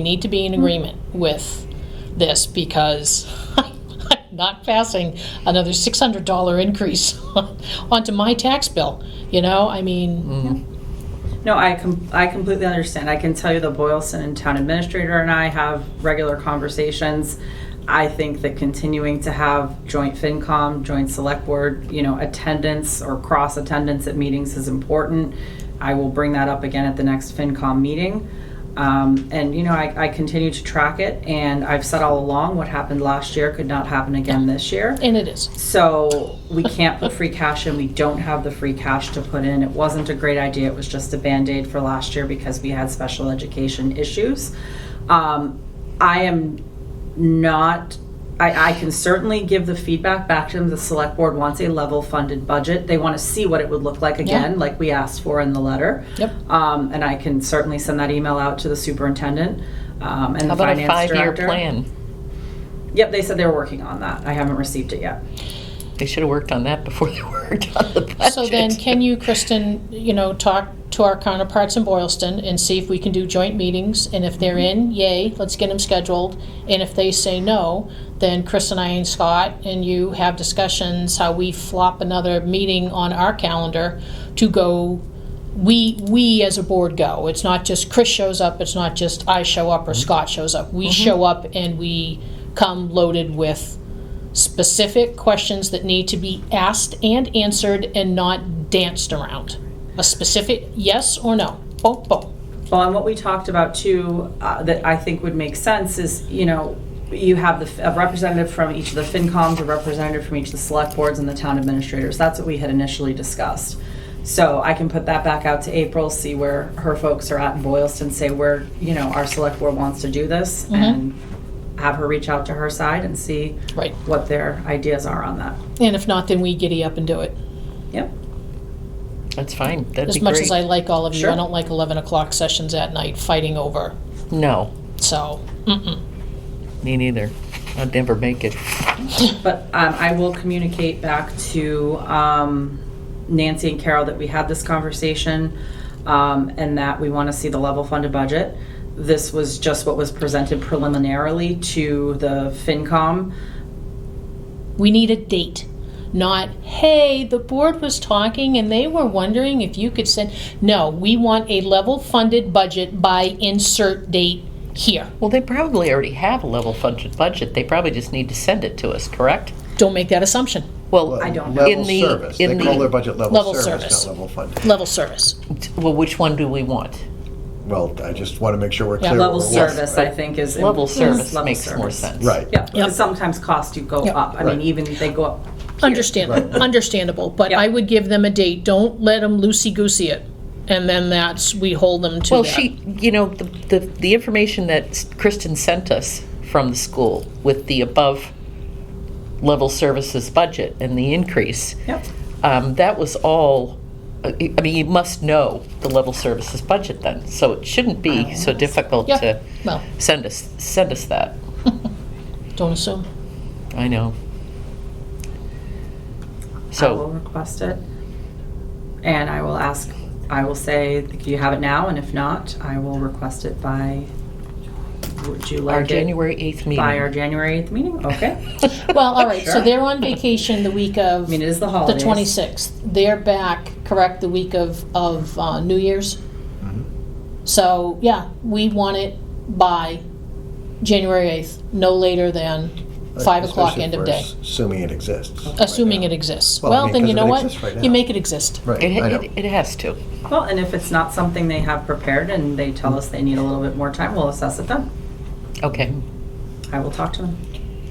We need to be in agreement with this because I'm not passing another $600 increase onto my tax bill, you know? I mean, No, I com- I completely understand. I can tell you the Boylston Town Administrator and I have regular conversations. I think that continuing to have joint FinCom, joint Select Board, you know, attendance or cross attendance at meetings is important. I will bring that up again at the next FinCom meeting. Um, and you know, I, I continue to track it, and I've said all along what happened last year could not happen again this year. and it is. So we can't put free cash in, we don't have the free cash to put in. It wasn't a great idea, it was just a Band-Aid for last year because we had special education issues. Um, I am not, I, I can certainly give the feedback back to them, the select board wants a level funded budget. They want to see what it would look like again, like we asked for in the letter. Yep. Um, and I can certainly send that email out to the superintendent, um, and How the about finance a director. five-year plan? Yep, they said they were working on that, I haven't received it yet. They should have worked on that before they worked on the budget. So then, can you, Kristen, you know, talk to our counterparts in Boylston and see if we can do joint meetings? And if they're in, yay, let's get them scheduled. And if they say no, then Chris and I and Scott and you have discussions how we flop another meeting on our calendar to go, we, we as a board go. It's not just Chris shows up, it's not just I show up or Scott shows up. We show up and we come loaded with specific questions that need to be asked and answered and not danced around. A specific yes or no. Boom, boom. Well, and what we talked about too, uh, that I think would make sense is, you know, you have the, f- a representative from each of the FinComs, a representative from each of the select boards and the town administrators. That's what we had initially discussed. So I can put that back out to April, see where her folks are at in Boylston, say where, you know, our select board wants to do this and have her reach out to her side and see Right. what their ideas are on that. And if not, then we giddy up and do it. Yep. That's fine, that'd be great. As much as I like all of you, I Sure. don't like 11 o'clock sessions at night fighting over. No, So, mm-mm. me neither. I'd never make it. But um, I will communicate back to um, Nancy and Carol that we had this conversation um, and that we want to see the level funded budget. This was just what was presented preliminarily to the FinCom. we need a date. Not, hey, the board was talking and they were wondering if you could send. No, we want a level funded budget by insert date here. Well, they probably already have a level funded budget, they probably just need to send it to us, correct? Don't make that assumption. Well, I don't know. in Level the- service. They in call the- their budget Level level service. service, not level funding. Level service. well, which one do we want? Well, I just want to make sure we're Yeah. clear. Level what we're working service, with. I think, is. Level is service Mm-hmm. level makes more service. sense. Right. Yeah, because Yep. sometimes costs do go Yep. up. I mean, Right. even if they go up. Understandable, Right. understandable, but I Yep. would give them a date, don't let them loosey-goosey it, and then that's, we hold them to Well, that. she, you know, the, the, the information that Kristen sent us from the school with the above level services budget and the increase, Yep. um, that was all, I I mean, you must know the level services budget then, so it shouldn't be so difficult Yeah. to Well. send us, send us that. Don't assume. I know. I will So, request it. And I will ask, I will say, do you have it now? And if not, I will request it by, would you our like it January 8th meeting. by our January 8th meeting? Okay. Well, all right, so Sure. they're on vacation the week I of mean, it the is the holidays. 26th. They're back, correct, the week of, of uh, New Year's? Mm-hmm. So, yeah, we want it by January 8th, no later than 5 o'clock Especially end if of we're day, s- Assuming it exists. assuming it exists. Well, I Well, mean, then 'cause you if know it what? exists right You now. make it exist. Right, It, I know. it, it has to. Well, and if it's not something they have prepared and they tell us they need a little bit more time, we'll assess it then. Okay. I will talk to them.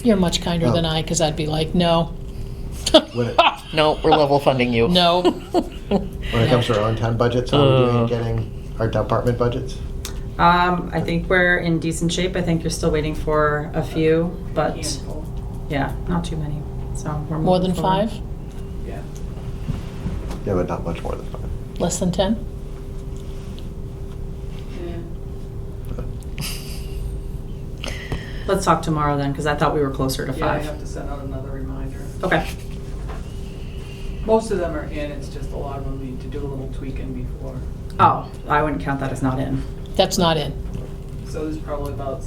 You're much kinder Well- than I, because I'd be like, no, When it, No, we're level funding you. no, when it comes to our on-time budgets, are we doing, getting our department budgets? Um, I think we're in decent shape. I think you're still waiting for a few, but yeah, not too many. So we're More moving than forward. five? Yeah, but not much more than five. Less than 10? Let's talk tomorrow then, because I thought we were closer to Yeah, I five. have to send out another reminder. Okay. Most of them are in, it's just a lot of them need to do a little tweaking before. Oh, I wouldn't count that as not in. That's not in. So there's probably about